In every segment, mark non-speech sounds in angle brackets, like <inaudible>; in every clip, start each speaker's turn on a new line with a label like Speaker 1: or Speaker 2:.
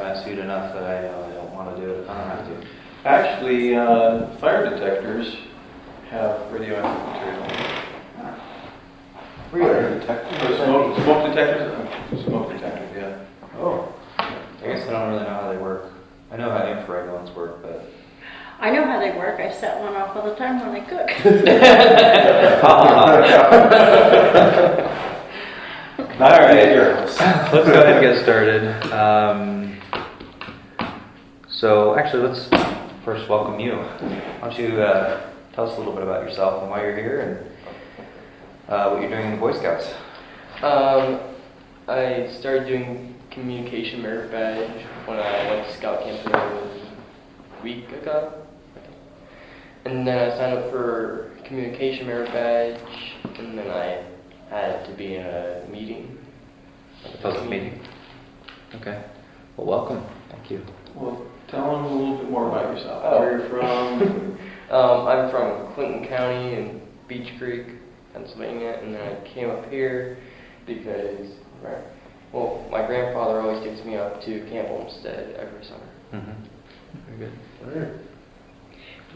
Speaker 1: I've sued enough that I, uh, I don't want to do it. I don't have to.
Speaker 2: Actually, uh, fire detectors have radioactive material.
Speaker 3: Really?
Speaker 2: Or smoke, smoke detectors, Uh, smoke detectors, yeah.
Speaker 3: Oh.
Speaker 1: I guess I don't really know how they work. I know how infrared ones work, <laughs> but
Speaker 4: I know how they work. I set one off all the time when I cook.
Speaker 2: All right.
Speaker 1: let's go ahead and get started. Um, so actually, let's first welcome you. Why don't you uh, tell us a little bit about yourself and why you're here and uh, what you're doing in the Boy Scouts?
Speaker 5: Um, I started doing communication merit badge when I went to scout camp a week ago. And then I signed up for communication merit badge, and then I had to be in a meeting.
Speaker 1: The public meeting. Okay. Well, welcome. Thank you.
Speaker 2: Well, tell them a little bit more about yourself,
Speaker 5: Oh.
Speaker 2: where you're
Speaker 5: <laughs>
Speaker 2: from.
Speaker 5: Um, I'm from Clinton County in Beach Creek, Pennsylvania, and then I came up here because, right, well, my grandfather always takes me up to Camp Olmsted every summer.
Speaker 1: Mm-hmm. Very good.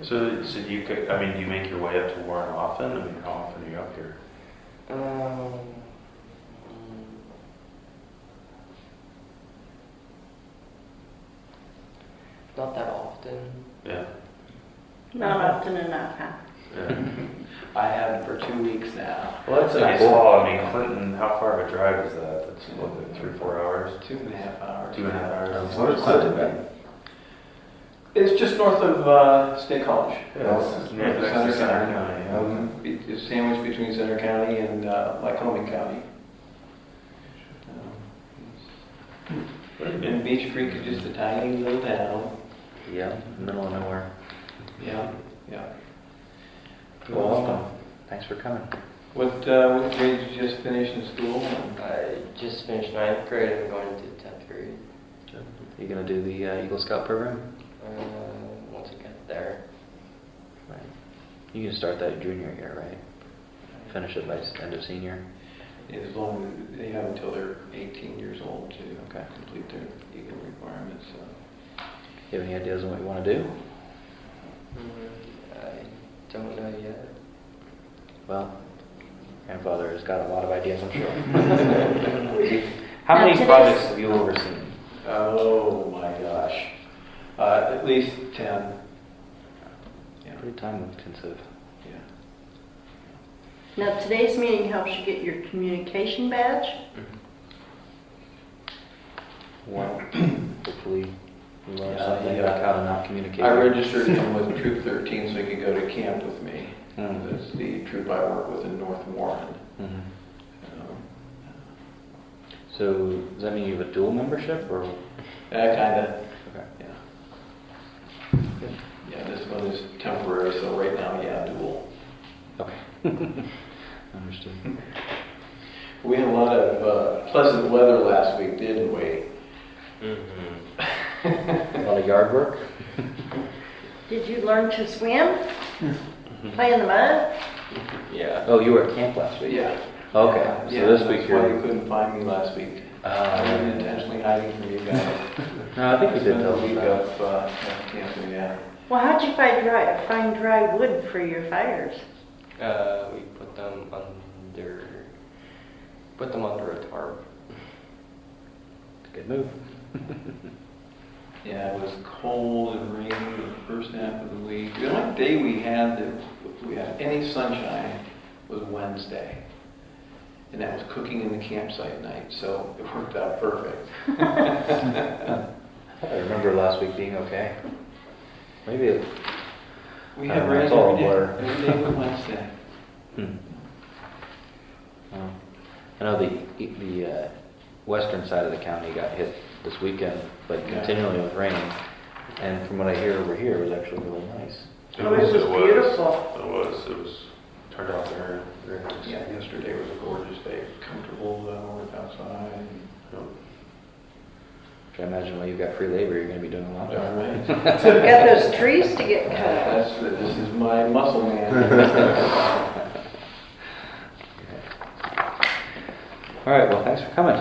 Speaker 6: So, so do you, co- I mean, do you make your way up to Warren often? I mean, how often are you up here?
Speaker 5: Um, mm, not that often.
Speaker 6: Yeah.
Speaker 4: Not often enough, huh?
Speaker 6: yeah.
Speaker 2: I have for two weeks now.
Speaker 6: Well, that's a nice
Speaker 1: Cool.
Speaker 6: haul. I mean, Clinton, how far of a drive is that? That's what, like three, four hours?
Speaker 2: Two and a half hours.
Speaker 6: Two and a half hours.
Speaker 3: What is that?
Speaker 2: It's just north of uh, State College. Mm-hmm.
Speaker 6: Yeah,
Speaker 3: Well,
Speaker 6: it's near the
Speaker 2: Center
Speaker 6: center
Speaker 2: County.
Speaker 6: county. yeah.
Speaker 3: Um,
Speaker 2: Be- It's sandwiched between Center County and uh, Lycoming County.
Speaker 6: Hmm.
Speaker 2: And Beach Creek is just a tiny little town.
Speaker 1: Yeah, middle of nowhere.
Speaker 2: Yeah, yeah.
Speaker 1: Well, welcome. Thanks for coming.
Speaker 2: What, uh, what grade did you just finish in school?
Speaker 5: I just finished ninth grade and going into tenth grade.
Speaker 1: You gonna do the uh, Eagle Scout program?
Speaker 5: Uh, once I got there,
Speaker 1: Right. You can start that junior year, right? Finish it by s- end of senior.
Speaker 2: As long as, they have until they're 18 years old to uh,
Speaker 1: Okay.
Speaker 2: complete their legal requirements, so.
Speaker 1: You have any ideas on what you want to do?
Speaker 5: mm, I don't know yet.
Speaker 1: Well, grandfather has got a lot of ideas, I'm
Speaker 4: <laughs>
Speaker 1: sure. How
Speaker 4: Now,
Speaker 1: many
Speaker 4: today's-
Speaker 1: projects have you overseen?
Speaker 2: Oh, my gosh. Uh, At least 10. Yeah,
Speaker 1: Pretty time intensive.
Speaker 2: yeah.
Speaker 4: Now, today's meeting helps you get your communication badge.
Speaker 2: <clears throat>
Speaker 1: Well, hopefully you learn
Speaker 2: Yeah,
Speaker 1: something
Speaker 2: yeah.
Speaker 1: about how to not communicate.
Speaker 2: I registered him with Troop 13 so he could go to camp with me.
Speaker 1: Hmm.
Speaker 2: That's the troop I work with in North Warren.
Speaker 1: Mhm.
Speaker 2: Um,
Speaker 1: So does that mean you have a dual membership or?
Speaker 2: Yeah, kinda,
Speaker 1: Okay.
Speaker 2: yeah. Yeah, this one is temporary, so right now, yeah, dual.
Speaker 1: Okay. <laughs> Understood.
Speaker 2: We had a lot of uh, pleasant weather last week, didn't we?
Speaker 1: A lot of yard work?
Speaker 4: Did you learn to swim? Play in the mud?
Speaker 5: Yeah.
Speaker 1: Oh, you were at camp last week?
Speaker 2: Yeah.
Speaker 1: Okay,
Speaker 2: Yeah,
Speaker 1: so this week
Speaker 2: That's why you
Speaker 1: you're.
Speaker 2: couldn't find me last week. I
Speaker 1: Uh,
Speaker 2: was intentionally hiding from you guys.
Speaker 1: No, <laughs> I think we
Speaker 2: It's
Speaker 1: did
Speaker 2: been a
Speaker 1: tell them
Speaker 2: week
Speaker 1: that.
Speaker 2: of, uh, of camping, yeah.
Speaker 4: Well, how'd you find dry, find dry wood for your fires?
Speaker 5: Uh, we put them under, put them under a tarp.
Speaker 1: Good move. <laughs>
Speaker 2: Yeah, it was cold and rainy the first half of the week. The only day we had that we had any sunshine was Wednesday. And that was cooking in the campsite night, so it worked out
Speaker 1: <laughs>
Speaker 2: perfect.
Speaker 1: I thought I remember last week being okay. Maybe, it-
Speaker 2: We
Speaker 1: I
Speaker 2: had
Speaker 1: don't know,
Speaker 2: rain
Speaker 1: Uh, it's all
Speaker 2: every day,
Speaker 1: blur.
Speaker 2: every day but
Speaker 1: <laughs>
Speaker 2: Wednesday.
Speaker 1: hmm. Well, I know the, the uh, western side of the county got hit this weekend, but
Speaker 2: Yeah.
Speaker 1: continually with rain. And from what I hear over here, it was actually really nice.
Speaker 4: Oh, it was beautiful.
Speaker 6: It was, it was, turned out very, very nice.
Speaker 2: Yeah, yesterday was a gorgeous day, comfortable, uh, work outside.
Speaker 1: Which I imagine while you've got free labor, you're gonna be doing a lot of.
Speaker 2: Alright.
Speaker 4: You got those trees to
Speaker 2: <laughs>
Speaker 4: get cut.
Speaker 2: That's, this is my muscle man.
Speaker 1: All right, well, thanks for coming.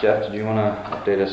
Speaker 1: Jeff, did you want to update us